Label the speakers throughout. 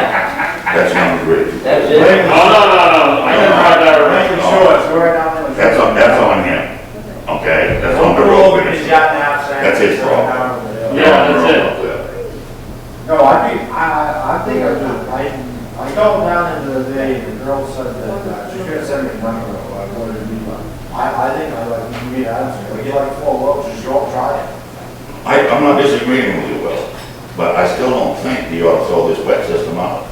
Speaker 1: Oh,
Speaker 2: I, I called down into the day, and the girl said that uh, she couldn't send me money, though, I wanted to be like, I, I think I like, you mean, I don't know, you like four loads, just go and try it.
Speaker 3: I, I'm not disagreeing with you, Will, but I still don't think you ought to throw this wet system out.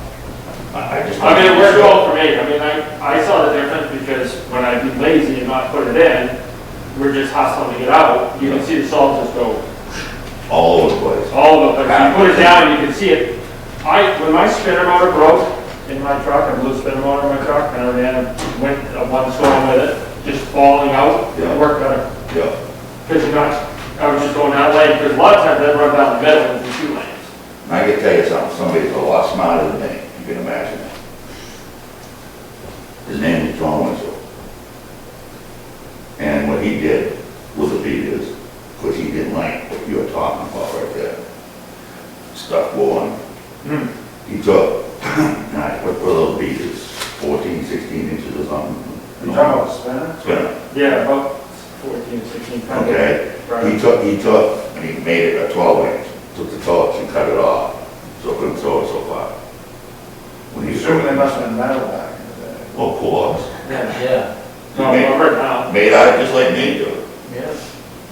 Speaker 3: I, I just. don't
Speaker 1: I mean,
Speaker 3: think
Speaker 1: it
Speaker 3: you
Speaker 1: worked
Speaker 3: should.
Speaker 1: well for me, I mean, I, I saw the difference because when I'd be lazy and not put it in, we're just hustling to get out, you can see the salt just go
Speaker 3: All over the place.
Speaker 1: all of it, but if you put it down, you can see it. I, when my spinner motor broke in my truck, a blue spinner motor in my truck, and I ran, went a one storm with it, just falling out,
Speaker 3: Yeah.
Speaker 1: it worked better.
Speaker 3: Yeah,
Speaker 1: Because you're not, I was just going that way, because a lot of times I run down the middle with the two lanes.
Speaker 3: and I can tell you something, somebody's a lot smarter than me, you can imagine that. His name is John Winslow. And what he did was a beat is, because he didn't like what you were talking about right there. Stuck one,
Speaker 2: Hmm.
Speaker 3: he took, and I put little beaters, 14, 16 inches or something.
Speaker 2: You talking about spinning?
Speaker 3: Spinner,
Speaker 1: Yeah, about fourteen, sixteen pounds.
Speaker 3: okay? He
Speaker 1: Right.
Speaker 3: took, he took, and he made it a twelve inch, took the torch and cut it off, so it couldn't throw it so far. When
Speaker 2: You
Speaker 3: he
Speaker 2: assume they
Speaker 3: threw it,
Speaker 2: must have been metal back in the day.
Speaker 3: of course,
Speaker 4: Yeah,
Speaker 1: No, I'm right now.
Speaker 3: made out just like me do,
Speaker 4: yeah.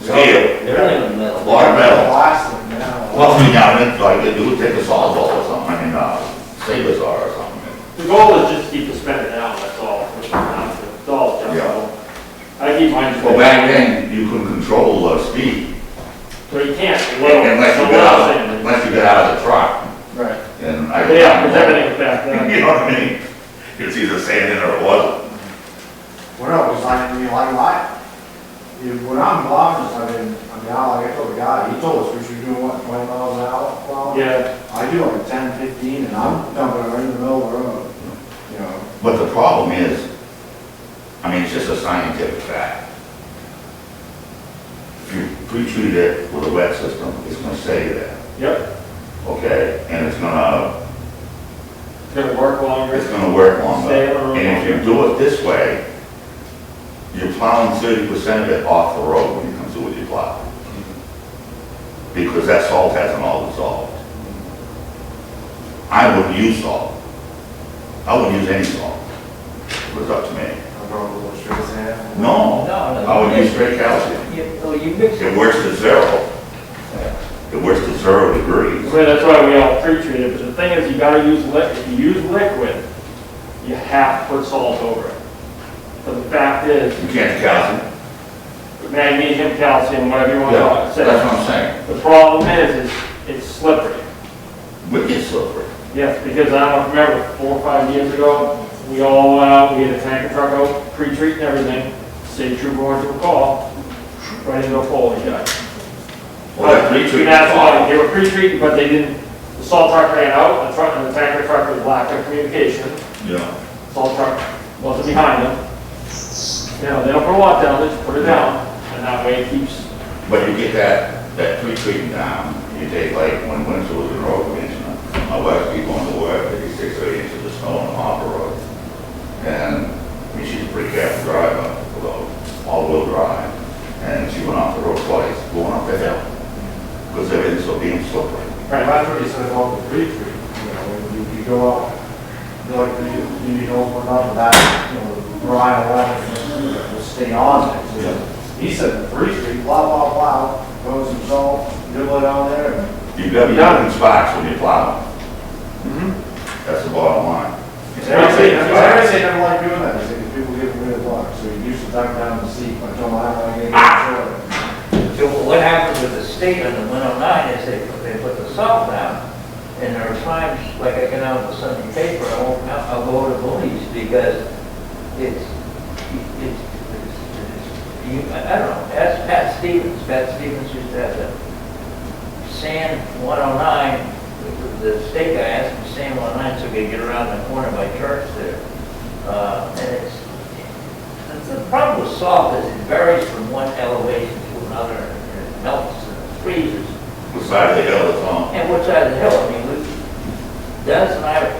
Speaker 3: steel,
Speaker 4: They're not even metal.
Speaker 3: Why? Or metal.
Speaker 2: Plastic now.
Speaker 3: well, you know, it's like they do, take a sawzall or something, I mean, uh, saber saw or something.
Speaker 1: The goal is just to keep the spending down, that's all, which is not, it's all junk.
Speaker 3: Yeah.
Speaker 1: I keep mine.
Speaker 3: Well, back then, you could control the speed,
Speaker 1: So you can't, well,
Speaker 3: unless you
Speaker 1: so
Speaker 3: got
Speaker 1: what I'm
Speaker 3: out,
Speaker 1: saying is-
Speaker 3: unless you got out of the truck,
Speaker 1: Right.
Speaker 3: and I.
Speaker 1: Yeah, because everything's back then.
Speaker 3: You know what I mean? It's either sand in or it wasn't,
Speaker 2: What else was like, I mean, like life? You, when I'm blocking, I mean, I mean, I like, I told the guy, he told us we should do what, twenty miles an hour? Well,
Speaker 1: Yeah,
Speaker 2: I do like ten, fifteen, and I'm dumping right in the middle of the road, you know?
Speaker 3: but the problem is, I mean, it's just a scientific fact. If you pre-treat it with a wet system, it's gonna stay there,
Speaker 1: yep,
Speaker 3: okay? And it's gonna,
Speaker 1: it's gonna work longer.
Speaker 3: it's gonna work longer.
Speaker 1: Stay on the road
Speaker 3: And if you do it this way, you're plowing thirty percent of it off the road when you come through with your plow. Because that salt hasn't all dissolved. I wouldn't use salt. I wouldn't use any salt. It was up to me.
Speaker 2: I'm going a little straight sand.
Speaker 3: No,
Speaker 4: No, no.
Speaker 3: I would use straight calcium.
Speaker 4: You, oh, you mix it.
Speaker 3: It works to zero. It works to zero degrees.
Speaker 1: Well, that's why we all pre-treat it, but the thing is, you gotta use liquid, if you use liquid, you have to put salt over it. But the fact is,
Speaker 3: You can't calcium.
Speaker 1: magnesium, calcium, whatever you wanna call it,
Speaker 3: That's
Speaker 1: so
Speaker 3: what I'm saying.
Speaker 1: the problem is, is it's slippery.
Speaker 3: Wicked slippery.
Speaker 1: Yes, because I don't remember, four or five years ago, we all went out, we had a tanker truck out, pre-treating everything, state trooper went to a call, right into a hole, yeah.
Speaker 3: Well, that pre-treatment.
Speaker 1: That's why, they were pre-treating, but they didn't, the salt truck ran out, the truck, and the tanker truck was lack of communication,
Speaker 3: Yeah.
Speaker 1: salt truck wasn't behind them. You know, they don't put a lot down, they just put it down, and that way it keeps,
Speaker 3: But you get that, that pre-treatment down, you take like when winter was in road commissioner, my wife be going to work, fifty-six, thirty inches of snow on the harbor road. And, I mean, she's a pretty careful driver, although all-wheel drive, and she went off the road twice, going up the hill. Because everything's so damn slippery.
Speaker 1: right,
Speaker 2: That's what you said about the retreat, you know, when you, you go out, you like, you, you need to open up that, you know, Ryan, Ryan, will stay on it. So He said the retreat, blah, blah, blah, goes and salt, dribble it down there, and
Speaker 3: You gotta be out in spots when you plow. That's the bottom line. It's
Speaker 2: Everybody,
Speaker 3: everything, right?
Speaker 2: everybody never like doing that, because people get rid of luck, so you usually duck down and see, but don't have, I get it.
Speaker 4: So what happened with the state on the one oh nine is they, they put the salt down. And there are times, like I get out of the Sunday paper, I won't, I'll go to Boonies because it's, it's, it's, it's, you, I I don't know, that's Pat Stevens, Pat Stevens used to have the sand one oh nine, the the state guy asked him sand one oh nine, so we could get around the corner by church there. Uh, and it's, the- The problem with salt is it varies from one elevation to another, and it melts and it freezes.
Speaker 3: The side of the hill is on.
Speaker 4: And what side of the hill, I mean, we- that's,